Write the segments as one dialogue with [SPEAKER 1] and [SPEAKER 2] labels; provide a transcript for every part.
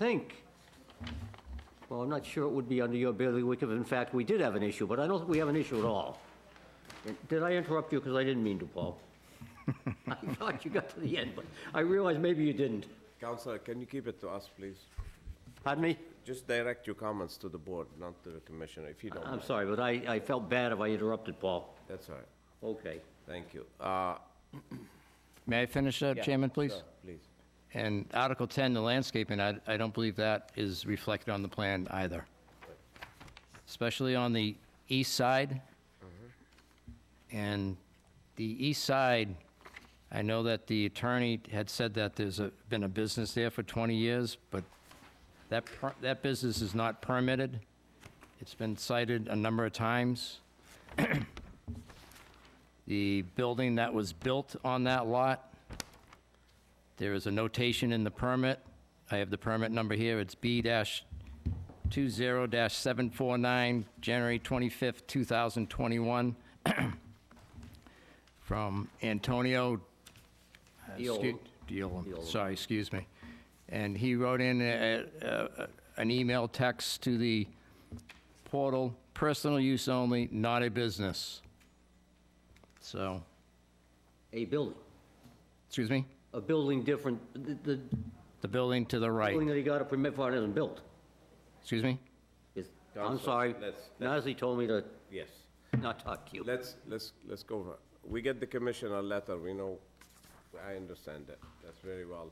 [SPEAKER 1] think, well, I'm not sure it would be under your bailiwick if in fact we did have an issue, but I don't think we have an issue at all. Did I interrupt you? Because I didn't mean to, Paul. I thought you got to the end, but I realized maybe you didn't.
[SPEAKER 2] Counselor, can you keep it to us, please?
[SPEAKER 1] Pardon me?
[SPEAKER 2] Just direct your comments to the board, not to the commissioner, if you don't
[SPEAKER 1] I'm
[SPEAKER 2] mind.
[SPEAKER 1] sorry, but I, I felt bad if I interrupted, Paul.
[SPEAKER 2] That's all right.
[SPEAKER 1] Okay.
[SPEAKER 2] Thank you. Uh,
[SPEAKER 3] May I finish that, Chairman, please?
[SPEAKER 2] sir, Please.
[SPEAKER 3] And Article 10, the landscaping, I, I don't believe that is reflected on the plan either. Especially on the east side. And the east side, I know that the attorney had said that there's a, been a business there for 20 years, but that, per- that business is not permitted. It's been cited a number of times. The building that was built on that lot there is a notation in the permit. I have the permit number here. It's B-20-749, January 25th, 2021, from Antonio... uh,
[SPEAKER 1] Diola.
[SPEAKER 3] excu- Diola, sorry, excuse me. And he wrote in a- a- a- an email text to the portal, personal use only, not a business. So,
[SPEAKER 1] A building,
[SPEAKER 3] excuse me?
[SPEAKER 1] a building different, the, the
[SPEAKER 3] The building to the right,
[SPEAKER 1] building that he got a permit for isn't built.
[SPEAKER 3] excuse me?
[SPEAKER 1] Is- I'm
[SPEAKER 2] Counselor,
[SPEAKER 1] sorry,
[SPEAKER 2] let's-
[SPEAKER 1] Nazzy told me to
[SPEAKER 2] Yes.
[SPEAKER 1] not talk to you.
[SPEAKER 2] Let's, let's, let's go over. We get the commissioner letter, we know, I understand that. That's very well.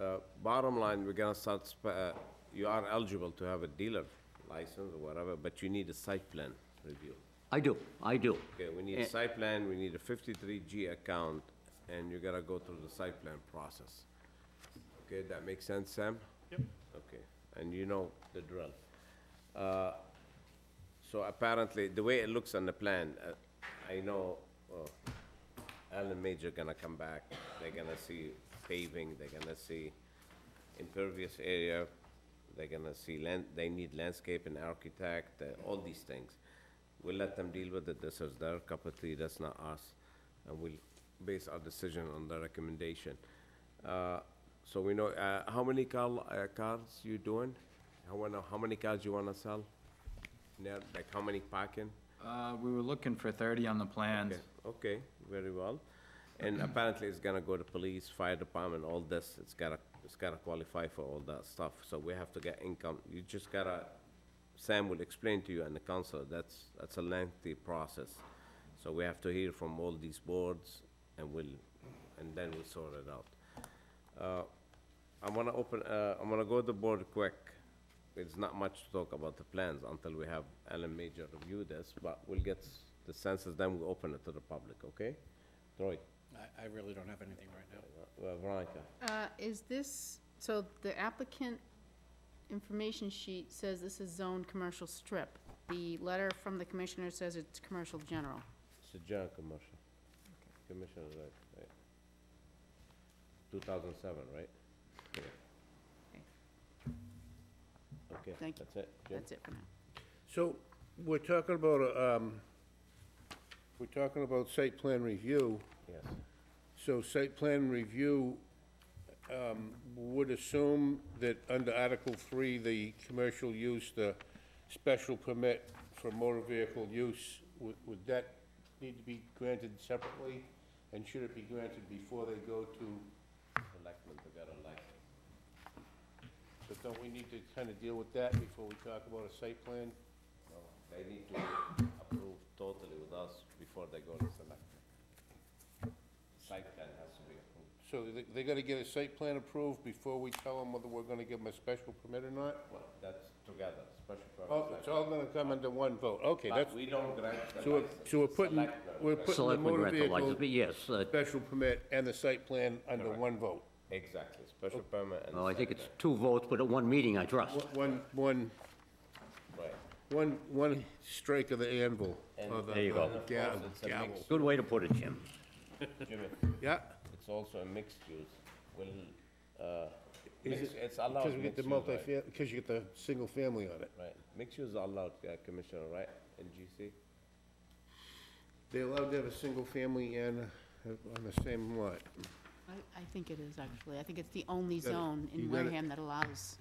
[SPEAKER 2] Uh, Bottom line, we're gonna start, sp- uh, you are eligible to have a dealer license or whatever, but you need a site plan review.
[SPEAKER 1] I do, I do.
[SPEAKER 2] Okay, we need a site plan, we need a 53G account, and you gotta go through the site plan process. Okay, that makes sense, Sam? Yep. Okay, and you know the drill. Uh, So apparently, the way it looks on the plan, uh, I know uh, Alan Major gonna come back, they're gonna see paving, they're gonna see impervious area, they're gonna see land, they need landscape and architect, uh, all these things. We'll let them deal with it, this is their cup of tea, that's not us, and we'll base our decision on their recommendation. Uh, So we know, uh, how many car, uh, cars you doing? How wanna, how many cars you wanna sell? Now, like how many parking?
[SPEAKER 4] Uh, we were looking for thirty on the plans.
[SPEAKER 2] Okay, Okay, very well. And apparently it's gonna go to police, fire department, all this, it's gotta, it's gotta qualify for all that stuff, so we have to get income, you just gotta, Sam will explain to you and the council, that's, that's a lengthy process. So we have to hear from all these boards, and we'll, and then we'll sort it out. Uh, I'm gonna open, uh, I'm gonna go to the board quick. It's not much to talk about the plans until we have Alan Major review this, but we'll get s- the census, then we'll open it to the public, okay? Troy,
[SPEAKER 5] I, I really don't have anything right now.
[SPEAKER 2] uh, Veronica,
[SPEAKER 6] Uh, Is this, so the applicant information sheet says this is zoned commercial strip. The letter from the commissioner says it's commercial general.
[SPEAKER 2] it's a general commercial. Commissioner, right, right. Two thousand seven, right? Yeah. Okay,
[SPEAKER 6] Thank you.
[SPEAKER 2] that's it. Jim?
[SPEAKER 6] That's it for now.
[SPEAKER 7] So, we're talking about, um, we're talking about site plan review.
[SPEAKER 2] Yes,
[SPEAKER 7] So site plan review, um, would assume that under Article Three, the commercial use, the special permit for motor vehicle use, would, would that need to be granted separately? And should it be granted before they go to,
[SPEAKER 2] selectmen, we got elected.
[SPEAKER 7] but don't we need to kind of deal with that before we talk about a site plan?
[SPEAKER 2] They need to approve totally with us before they go to selectmen. Site plan has to be approved.
[SPEAKER 7] So they, they gotta get a site plan approved before we tell them whether we're gonna give them a special permit or not?
[SPEAKER 2] Well, that's together, special
[SPEAKER 7] Oh,
[SPEAKER 2] permit.
[SPEAKER 7] it's all gonna come under one vote, okay, that's,
[SPEAKER 2] But we don't grant the
[SPEAKER 7] so we're,
[SPEAKER 2] license.
[SPEAKER 7] so we're putting,
[SPEAKER 2] Selectmen.
[SPEAKER 7] we're putting the
[SPEAKER 1] Selectmen
[SPEAKER 7] motor
[SPEAKER 1] grant the license,
[SPEAKER 7] vehicle
[SPEAKER 1] but yes, uh,
[SPEAKER 7] special permit and the site plan under one vote.
[SPEAKER 2] Exactly, special
[SPEAKER 7] Oh.
[SPEAKER 2] permit and.
[SPEAKER 1] well, I think
[SPEAKER 2] site
[SPEAKER 1] it's two votes, but at one meeting, I trust.
[SPEAKER 7] One,
[SPEAKER 2] plan.
[SPEAKER 7] one,
[SPEAKER 2] Right.
[SPEAKER 7] one, one strike of the anvil, or
[SPEAKER 1] There you
[SPEAKER 7] the
[SPEAKER 1] go.
[SPEAKER 7] uh, gavel,
[SPEAKER 2] It's a
[SPEAKER 7] gavel,
[SPEAKER 2] mixed-
[SPEAKER 1] Good way to put it, Jim.
[SPEAKER 2] Jimmy,
[SPEAKER 7] yeah.
[SPEAKER 2] It's also a mixed use, will, uh,
[SPEAKER 7] Is
[SPEAKER 2] mix-
[SPEAKER 7] it-
[SPEAKER 2] it's allowed.
[SPEAKER 7] Because we get the
[SPEAKER 2] mixed use, right?
[SPEAKER 7] multifam, because you get the single family on it.
[SPEAKER 2] Right, mixed use are allowed, uh, Commissioner, right, in GC?
[SPEAKER 7] They allowed to have a single family and, uh, on the same lot.
[SPEAKER 6] I, I think it is, actually. I think it's the only
[SPEAKER 7] Got it.
[SPEAKER 6] zone in
[SPEAKER 7] You got it.
[SPEAKER 6] Wareham that allows